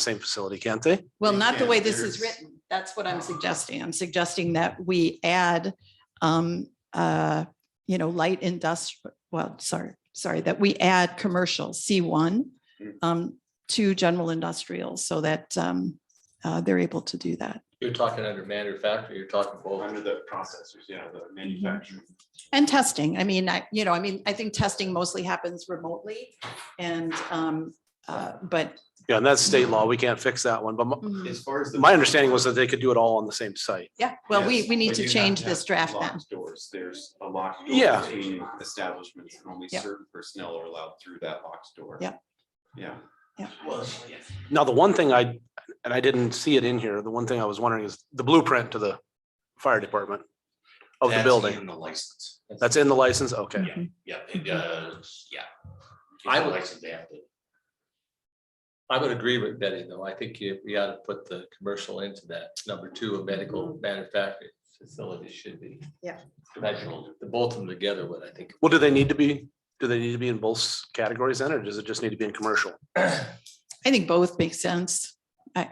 same facility, can't they? Well, They not the can, way this is there's- written. That's what Oh. I'm suggesting. I'm suggesting that we add, um, uh, you know, light industrial, well, sorry, sorry, that we add commercial C one Mm. um, to general industrial so that, um, uh, they're able to do that. You're talking under manufacturer, you're talking both. Under the processors, yeah, Mm-hmm. the manufacturing. And testing, I mean, I, you know, I mean, I think testing mostly happens remotely and, um, uh, but. Yeah, and that's state law. We can't fix that one, but my, Mm-hmm. mm, As far as. the- my understanding was that they could do it all on the same site. Yeah, well, we, Yes, we need but to you have change have this draft then. locked Doors, there's a locked door Yeah. between establishments and only Yeah. certain personnel are allowed through that locked door. Yeah. Yeah. Now, the one thing I, and I didn't see it in here, the one thing I was wondering is the blueprint to the fire department of the That's building. In the license. That's in the license? Okay. Yeah, yeah, it does, yeah. I It's a would- License they have to. I would agree with Betty, though. I think you- we ought to put the commercial into that. Number two, a medical manufacturing facility should be. Mm-hmm. Yeah. Commercial, the both of them together would, I think. Well, do they need to be, do they need to be in both categories then, or does it just need to be in commercial? I think both make sense. What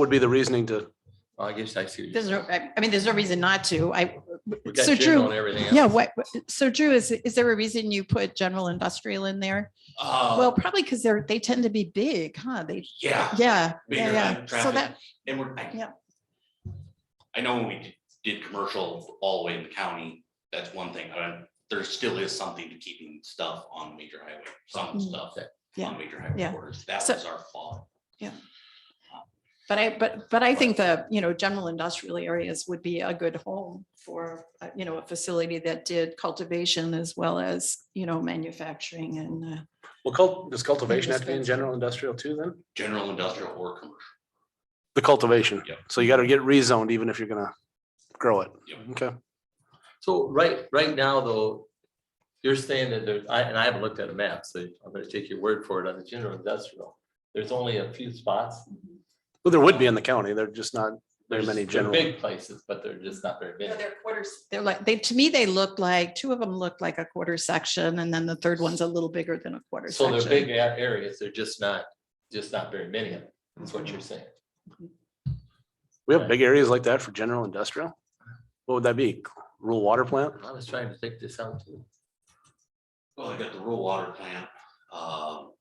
would be the reasoning to, I guess I see. what you're There's no, saying. I I mean, there's no reason not to. I, We so got Drew, Jim on everything. else. yeah, what, so Drew, is, is there a reason you put general industrial in there? Uh, Well, probably because they're, they tend to be big, huh? They, Yeah, yeah, yeah, Bigger yeah. than So traffic. that, and we're, I. Yep. I know when we did- did commercial all the way in the county, that's one thing, but there still is something to keeping stuff on major highway, some Mm. stuff that. Yeah, On major highway yeah. corridors, that So- was our fault. but I, but, but I think the, you know, general industrial areas would be a good home for, uh, you know, a facility that did cultivation as well as, you know, manufacturing and, uh, well, cult, does cultivation have to be in general industrial too then? General industrial or commercial, The cultivation. Yep. So you gotta get rezoned even if you're gonna grow it. Yep. Okay. So right, right now, though, you're saying that there, I, and I haven't looked at a map, so I'm gonna take your word for it on the general industrial. There's only a few spots. Well, there would be in the county. They're just not very There's many they're general. Big places, but they're just not very you know, big. they're quarters, they're like, they, to me, they look like, two of them look like a quarter section and then the third one's a little bigger than a quarter So section. they're big a- areas, they're just not, just not very many of them, is what you're saying. We have big areas like that for general industrial. What would that be? Rural water plant? I was trying to think this out too. well, I got the rural water plant, um.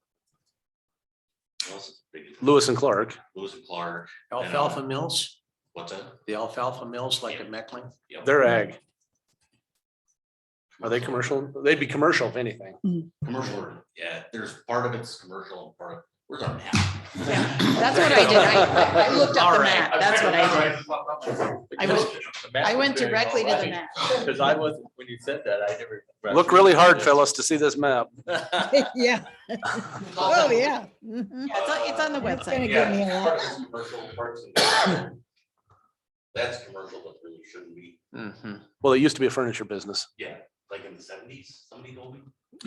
what else is big? Lewis and Clark. Lewis and Clark, Alfalfa mills, what's that? the alfalfa mills like at Meckling? Yep. They're ag. Are they commercial? They'd be commercial if anything. Commercial, or- yeah, there's part of it's commercial and part of, where's our map? Yeah, That's what I did. I, I looked up the map. That's what I did. I went- I went directly to the map. Because I wasn't, when you said that, I never. Look really hard, fellas, to see this map. Yeah, oh, yeah. Mhm. Yeah, It's on, it's Uh, on the It's gonna website. give me a lot. That's commercial, but really shouldn't be, Well, it used to be a furniture business, yeah, like in the seventies, somebody told me.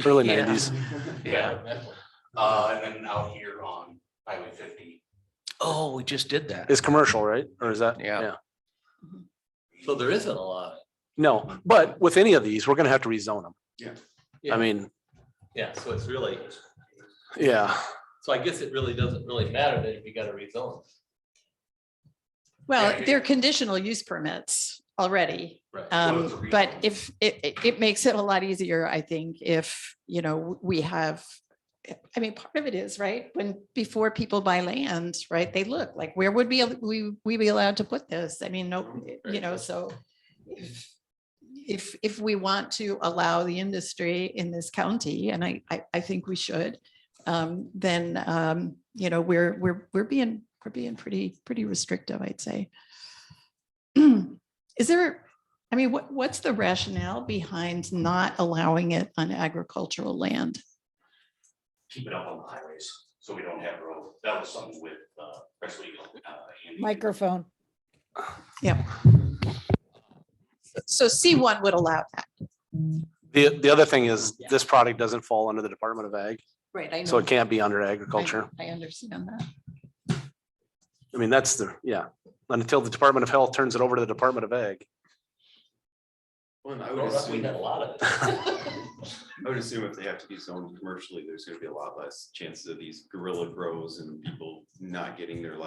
early Yeah. nineties. Yeah. Uh, and then out here on Highway fifty. Oh, we just did that. It's commercial, right? Or is that? Yeah. So there isn't a lot. No, but with any of these, we're gonna have to rezone them. Yeah. I mean, Yeah, so it's really, yeah. so I guess it really doesn't really matter that if you got a rezone. Well, Yeah, yeah. they're conditional use permits already. Right. Well, it's a Um, but rezone. if, it, it, it makes it a lot easier, I think, if, you know, we have, I mean, part of it is, right, when, before people buy land, right, they look like, where would we, we, we be allowed to put this? I mean, no, you know, so if, if, if we want to allow the industry in this county, and I, I, I think we should, um, then, um, you know, we're, we're, we're being, we're being pretty, pretty restrictive, I'd say. Is there, I mean, what, what's the rationale behind not allowing it on agricultural land? Keep it up on the highways, so we don't have road, that was something with, uh, press legal. uh, Andy. Microphone. So C1 would allow that. The, the other thing is Yeah. this product doesn't fall under the Department of Ag, Right, I know. so it can't be under I- agriculture. I understand that. I mean, that's the, yeah, until the Department of Health turns it over to the Department of Ag. Well, and I would Growing up, We assume, had a I lot of it. would assume if they have to be zoned commercially, there's gonna be a lot less chances of these guerrilla grows and people not getting their license